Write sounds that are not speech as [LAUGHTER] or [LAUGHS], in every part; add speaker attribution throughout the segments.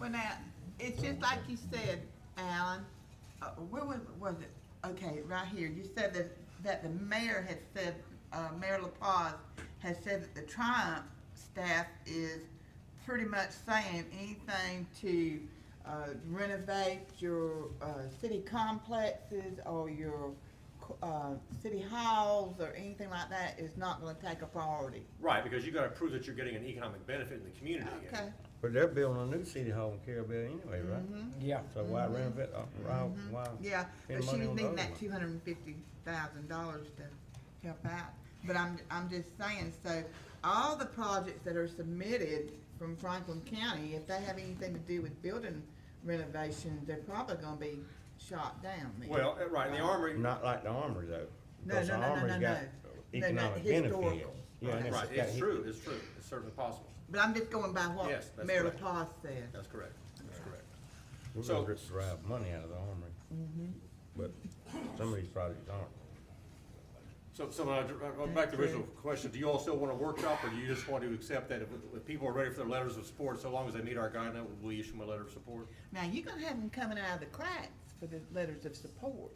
Speaker 1: Well, now, it's just like you said, Alan, uh, where was, was it? Okay, right here, you said that, that the mayor had said, uh, Mayor LaPaz has said that the Triumph staff is pretty much saying anything to, uh, renovate your, uh, city complexes or your, co- uh, city halls or anything like that is not gonna take a priority.
Speaker 2: Right, because you gotta prove that you're getting an economic benefit in the community.
Speaker 1: Okay,
Speaker 3: But they're building a new city hall in Carabelle anyway, right?
Speaker 1: Mm-hmm.
Speaker 4: Yeah.
Speaker 3: So why renovate, uh, why, why?
Speaker 1: yeah, but
Speaker 3: spend
Speaker 1: she
Speaker 3: money
Speaker 1: was
Speaker 3: on
Speaker 1: needing
Speaker 3: those?
Speaker 1: that two hundred and fifty thousand dollars to help out. But I'm, I'm just saying, so all the projects that are submitted from Franklin County, if they have anything to do with building renovations, they're probably gonna be shot down then.
Speaker 2: Well, uh, right, the armory,
Speaker 3: Not like the Armory though.
Speaker 1: No,
Speaker 3: because
Speaker 1: no,
Speaker 3: the
Speaker 1: no, no,
Speaker 3: Armory's
Speaker 1: no,
Speaker 3: got
Speaker 1: no. They're not
Speaker 3: Economic benefit.
Speaker 1: historical.
Speaker 3: Yeah, and
Speaker 2: right,
Speaker 3: got
Speaker 2: it's
Speaker 3: hi-
Speaker 2: true, it's true, it's certainly possible.
Speaker 1: But I'm just going by
Speaker 2: Yes,
Speaker 1: what
Speaker 2: that's
Speaker 1: Mayor
Speaker 2: correct.
Speaker 1: LaPaz said.
Speaker 2: That's correct, that's correct.
Speaker 3: We're
Speaker 2: So-
Speaker 3: gonna drive money out of the Armory.
Speaker 1: Mm-hmm.
Speaker 3: But some of these projects aren't.
Speaker 2: So, so uh, uh, back to the original question, do you all still want a workshop, or do you just want to accept that if, if people are ready for their letters of support, so long as they meet our guideline, we issue them a letter of support?
Speaker 1: Now, you're gonna have them coming out of the cracks for the letters of support.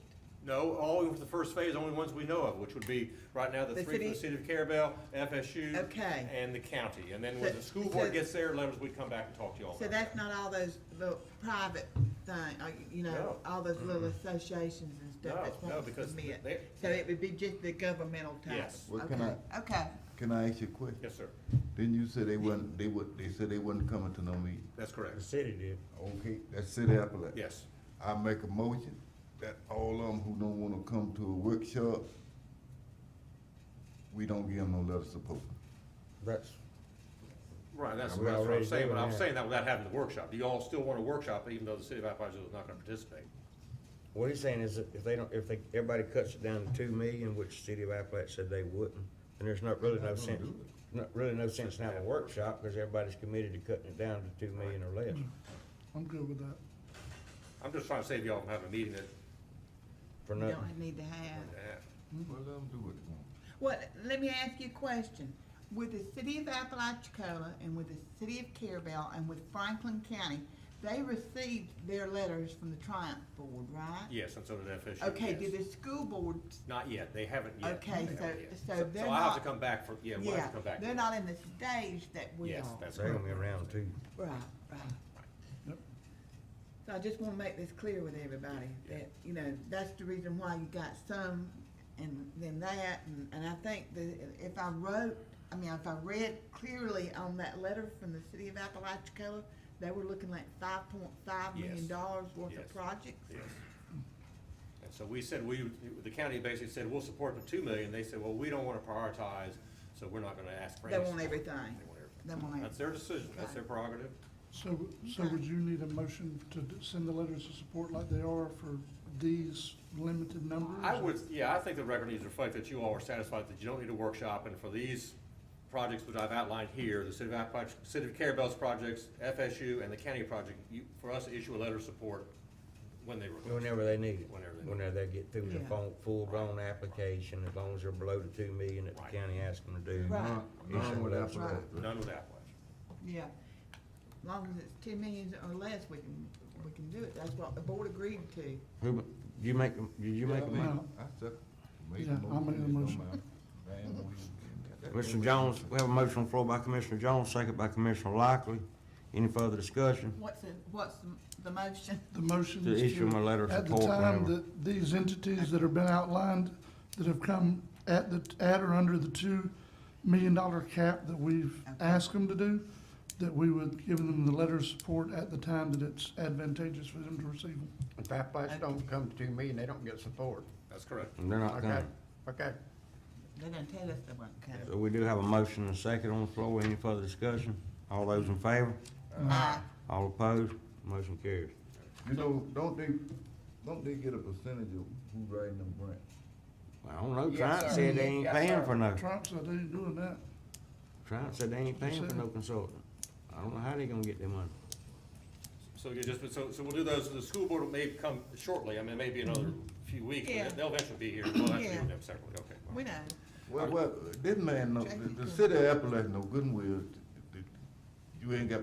Speaker 2: No, all of the first phase, only ones we know of, which would be right now the
Speaker 1: The
Speaker 2: three from the
Speaker 1: city-
Speaker 2: city of Carabel, FSU.
Speaker 1: Okay.
Speaker 2: And the county, and then when
Speaker 1: So-
Speaker 2: the school board
Speaker 1: so-
Speaker 2: gets their letters, we come back and talk to y'all.
Speaker 1: So
Speaker 2: about
Speaker 1: that's
Speaker 2: that.
Speaker 1: not all those little private thing, uh, you know,
Speaker 2: No.
Speaker 1: all those little associations and
Speaker 2: No,
Speaker 1: stuff that's
Speaker 2: no,
Speaker 1: wanting to
Speaker 2: because
Speaker 1: submit.
Speaker 2: they-
Speaker 1: So it would be just the governmental type?
Speaker 2: Yes.
Speaker 5: Well, can
Speaker 1: Okay, okay.
Speaker 5: Can I ask you a question?
Speaker 2: Yes, sir,
Speaker 5: Didn't you say they wouldn't, they would, they said they wouldn't coming to no meeting?
Speaker 2: that's
Speaker 3: The
Speaker 2: correct,
Speaker 3: city did.
Speaker 5: Okay, that's City Appalachia.
Speaker 2: yes.
Speaker 5: I make a motion that all of them who don't wanna come to a workshop, we don't give them no letter of support.
Speaker 3: That's,
Speaker 2: Right, that's,
Speaker 3: We're
Speaker 2: that's what I'm
Speaker 3: already
Speaker 2: saying, but
Speaker 3: doing
Speaker 2: I'm
Speaker 3: that.
Speaker 2: saying that without having the workshop, do you all still want a workshop, even though the city of Apalachicola is not gonna participate?
Speaker 3: what he's saying is that if they don't, if they, everybody cuts it down to two million, which City of Appalachia said they wouldn't, then there's not really no sense, not really no sense in having a workshop, because everybody's committed to cutting it down to two million or less.
Speaker 1: Mm-hmm.
Speaker 6: I'm good with that.
Speaker 2: I'm just trying to save y'all from having a meeting that,
Speaker 3: For
Speaker 1: You
Speaker 3: nothing.
Speaker 1: don't need to have.
Speaker 2: that-
Speaker 7: Hmm,
Speaker 5: Well, let them do what they want.
Speaker 1: Well, let me ask you a question. With the city of Apalachicola and with the city of Carabel and with Franklin County, they received their letters from the Triumph Board, right?
Speaker 2: yes, and so did FSU.
Speaker 1: Okay,
Speaker 2: yes.
Speaker 1: did the school board,
Speaker 2: Not yet, they haven't yet.
Speaker 1: Okay,
Speaker 2: They
Speaker 1: so-
Speaker 2: haven't yet.
Speaker 1: so they're
Speaker 2: So I'll
Speaker 1: not-
Speaker 2: have to come back for, yeah, we'll have to come
Speaker 1: yeah,
Speaker 2: back. to
Speaker 1: they're
Speaker 2: that.
Speaker 1: not in the stage that we
Speaker 2: Yes,
Speaker 1: are.
Speaker 2: that's
Speaker 3: They're gonna be
Speaker 2: correct.
Speaker 3: around two.
Speaker 1: Right, right.
Speaker 6: Yep.
Speaker 1: So I just wanna make this clear with everybody,
Speaker 2: Yeah.
Speaker 1: that, you know, that's the reason why you got some and then that, and, and I think that if I wrote, I mean, if I read clearly on that letter from the city of Apalachicola, they were looking like five point five million
Speaker 2: Yes.
Speaker 1: dollars worth of
Speaker 2: Yes.
Speaker 1: projects.
Speaker 2: Yes. And so we said, we, the county basically said, we'll support the two million, they said, well, we don't want to prioritize, so we're not going to ask for
Speaker 1: They
Speaker 2: any.
Speaker 1: want
Speaker 2: support."
Speaker 1: everything.
Speaker 2: They want everything.
Speaker 1: They want
Speaker 2: That's their decision, that's their prerogative.
Speaker 6: So, so would you need a motion to d- send the letters of support like they are for these limited
Speaker 1: Mm-hmm.
Speaker 6: numbers?
Speaker 2: I would, yeah, I think the record needs to reflect that you all are satisfied that you don't need a workshop, and for these projects which I've outlined here, the City of Appalachia, City of Carabel's projects, FSU, and the county project, you, for us to issue a letter of support when they request.
Speaker 3: Whenever they need it,
Speaker 2: Whenever they need it.
Speaker 3: whenever they get through the
Speaker 1: Yeah.
Speaker 3: full, full-blown application, as long as they're below the two million that the
Speaker 2: Right.
Speaker 3: county asked them to do.
Speaker 1: Right.
Speaker 3: You said
Speaker 5: None with
Speaker 3: that's
Speaker 5: Appalachia.
Speaker 2: None with Appalachia.
Speaker 1: Yeah, as long as it's ten million or less, we can, we can do it, that's what the board agreed to.
Speaker 3: Who, you make, them- did you make
Speaker 5: Yeah,
Speaker 3: a
Speaker 5: I
Speaker 3: motion?
Speaker 5: mean, I said, made
Speaker 6: Yeah, I
Speaker 5: the motion.
Speaker 6: made the
Speaker 5: it don't
Speaker 6: motion.
Speaker 5: matter. Man, we-
Speaker 3: Mr. Jones, we have a motion on the floor by Commissioner Jones, second by Commissioner Lockley. Any further discussion?
Speaker 1: What's the, what's the- the motion?
Speaker 6: [LAUGHS] The motion
Speaker 3: To
Speaker 6: is to.
Speaker 3: issue them a letter of support
Speaker 6: At the time
Speaker 3: whenever.
Speaker 6: that these entities that have been outlined, that have come at the, at or under the two million dollar cap that we've asked them to do, that we would give them the letter of support at the time that it's advantageous for them to receive them.
Speaker 7: If that place don't come to me and they don't get support,
Speaker 2: That's correct.
Speaker 3: And they're not
Speaker 7: okay,
Speaker 3: coming.
Speaker 7: okay.
Speaker 1: They're gonna tell us they won't come.
Speaker 3: So we do have a motion and a second on the floor. Any further discussion? All those in favor?
Speaker 1: Aye.
Speaker 3: All opposed? Motion carries.
Speaker 5: You know, don't they, don't they get a percentage of who writing them grants?
Speaker 3: I don't know,
Speaker 7: Yes,
Speaker 3: Triumph
Speaker 7: sir.
Speaker 3: said they ain't
Speaker 7: Yes,
Speaker 3: paying
Speaker 7: sir.
Speaker 3: for no,
Speaker 6: Trump said they ain't doing that.
Speaker 3: Triumph said they ain't paying
Speaker 6: Yes,
Speaker 3: for
Speaker 6: sir.
Speaker 3: no consultant. I don't know how they gonna get their money.
Speaker 2: So you just, so, so we'll do those, the school board may come shortly, I mean, maybe another few weeks,
Speaker 1: Mm-hmm. Yeah.
Speaker 2: but they'll eventually be here, we'll have to deal
Speaker 1: Yeah.
Speaker 2: with them separately, okay.
Speaker 1: We know.
Speaker 5: Well, well, this man, know- the, the city of Appalachia, no good and well, th- th- you ain't got